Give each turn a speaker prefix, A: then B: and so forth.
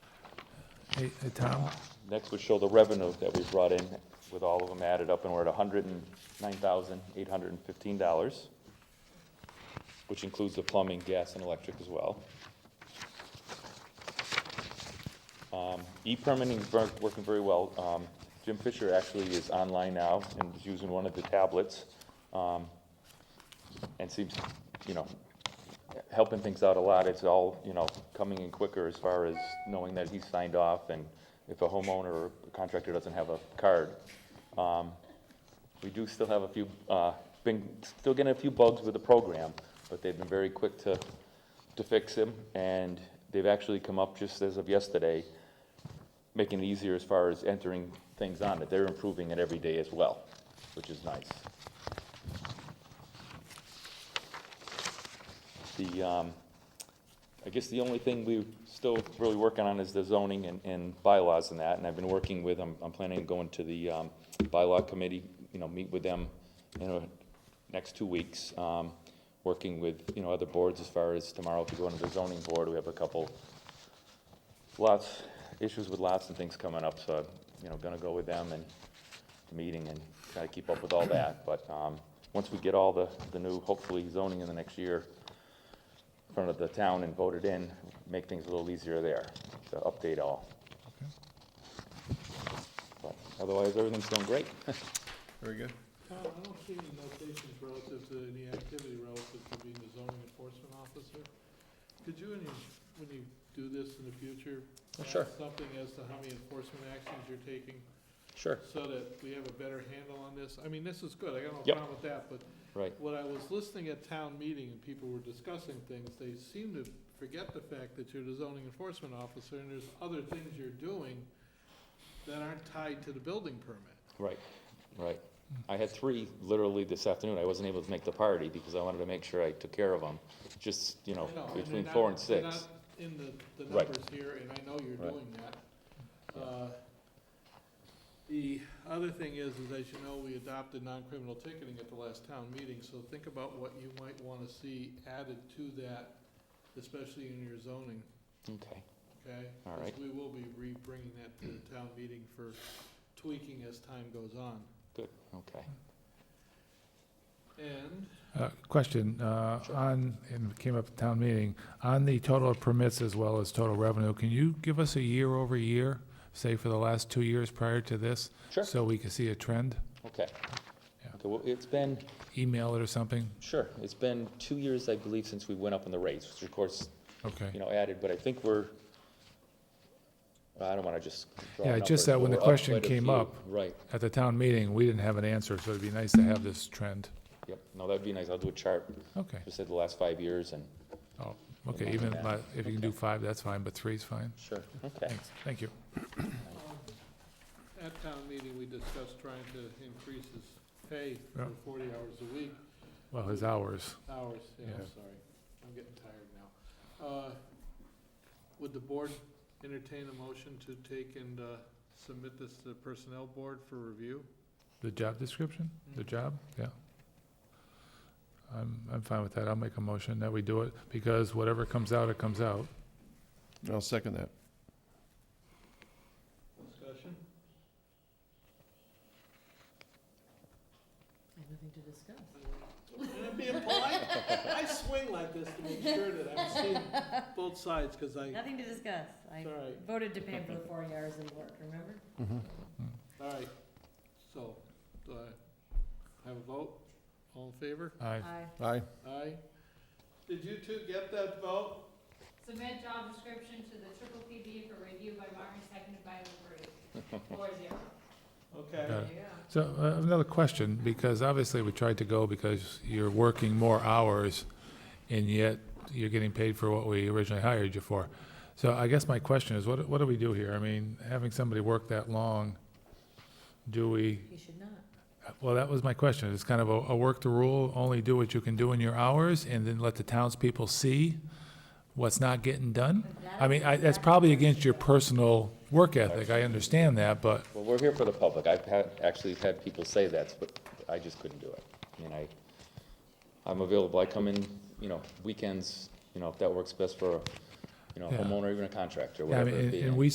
A: Hey, hey, Tom?
B: Next would show the revenue that we brought in with all of them added up, and we're at hundred and nine thousand, eight hundred and fifteen dollars, which includes the plumbing, gas, and electric as well. Um, E-permitting is ver- working very well. Um, Jim Fisher actually is online now and is using one of the tablets, um, and seems, you know, helping things out a lot. It's all, you know, coming in quicker as far as knowing that he's signed off and if a homeowner or contractor doesn't have a card. Um, We do still have a few, uh, been, still getting a few bugs with the program, but they've been very quick to, to fix them. And they've actually come up just as of yesterday, making it easier as far as entering things on it. They're improving it every day as well, which is nice. The, um, I guess the only thing we're still really working on is the zoning and, and bylaws and that, and I've been working with, I'm, I'm planning on going to the, um, bylaw committee, you know, meet with them in the next two weeks, um, working with, you know, other boards as far as tomorrow, if you go into the zoning board, we have a couple lots, issues with lots and things coming up, so, you know, gonna go with them and the meeting and try to keep up with all that, but, um, once we get all the, the new, hopefully zoning in the next year, in front of the town and voted in, make things a little easier there, to update all. But Otherwise, everything's going great.
A: Very good.
C: Tom, Uh, I don't see any notations relative to any activity relative to being the zoning enforcement officer. Could you, when you, when you do this in the future?
D: Oh, sure.
C: add Something as to how many enforcement actions you're taking,
D: Sure.
C: so that we have a better handle on this? I mean, this is good, I got no
B: Yep.
C: problem with that, but
B: Right.
C: when I was listening at town meeting and people were discussing things, they seem to forget the fact that you're the zoning enforcement officer and there's other things you're doing that aren't tied to the building permit.
B: Right, right. I had three literally this afternoon. I wasn't able to make the party because I wanted to make sure I took care of them, just, you know,
C: I know, and they're
B: between
C: not-
B: four and
C: they're
B: six.
C: not In the, the
B: Right.
C: numbers here, and I know you're
B: Right.
C: doing that. Uh, The other thing is, is as you know, we adopted non-criminal ticketing at the last town meeting, so think about what you might wanna see added to that, especially in your zoning,
B: Okay,
C: okay?
B: All
C: 'Cause
B: right.
C: We will be re-bringing that to the town meeting for tweaking as time goes on.
B: okay.
C: And
A: Uh, Question, uh, on, and it came up at town meeting, on the total of permits as well as total revenue, can you give us a year-over-year, say for the last two years prior to this?
B: Sure.
A: So we can see a trend?
C: Hmm.
B: Okay.
A: Yeah.
B: Okay, well, it's been,
A: Email it or something?
B: sure, it's been two years, I believe, since we went up in the rates, which of course, you
A: Okay.
B: know, added, but I think we're, I don't wanna just. draw
A: Yeah, just
B: numbers,
A: that
B: but
A: when the
B: we're up
A: question
B: quite a
A: came
B: few.
A: up,
B: Right.
A: At the town meeting, we didn't have an answer, so it'd be nice to have this trend.
B: Yep, no, that'd be nice, I'll do a chart,
A: Okay,
B: just said the last five years and.
A: oh, okay, even
B: Yeah.
A: li- if you can do
B: Okay.
A: five, that's fine, but three's fine.
B: Sure. Okay,
A: Thanks, thank you.
C: Um, At town meeting, we discussed trying to increase his pay
A: Yeah.
C: for forty hours a week,
A: Well, his hours,
C: hours, yeah,
A: Yeah.
C: I'm sorry, I'm getting tired now. Uh, Would the board entertain a motion to take and uh, submit this to the personnel board for review?
A: the job description, the job, yeah. I'm, I'm fine with that, I'll make a motion that we do it, because whatever comes out, it comes out.
D: I'll second that.
C: Discussion?
E: I have nothing to discuss.
C: And I'm being polite, I swing like this to make sure that I'm seeing both sides, because I,
E: Nothing to discuss. I
C: it's all right,
E: voted to pay him for the forty hours of work, remember?
C: all right. So, do I have a vote? All in favor?
A: I,
E: Aye.
D: Aye.
C: Aye. Did you two get that vote?
F: Submit job description to the triple PB for review by Martin, seconded by LaBrie. oh Four zero.
A: Got
C: Okay.
A: it.
E: Yeah.
A: so, uh, another question, because obviously we tried to go because you're working more hours, and yet you're getting paid for what we originally hired you for. So I guess my question is, what, what do we do here? I mean, having somebody work that long, do we
E: He should not.
A: Well, that was my question. It's kind of a, a work the rule, only do what you can do in your hours, and then let the townspeople see what's not getting done? I mean, I, that's probably against your personal work ethic. I understand that, but,
B: well, we're here for the public, I've had, actually had people say that, but I just couldn't do it. I mean, I, I'm available, I come in, you know, weekends, you know, if that works best for, you know, a
A: Yeah.
B: homeowner, even a contractor,
A: I
B: whatever
A: mean,
B: it
A: and-
B: be.
A: and we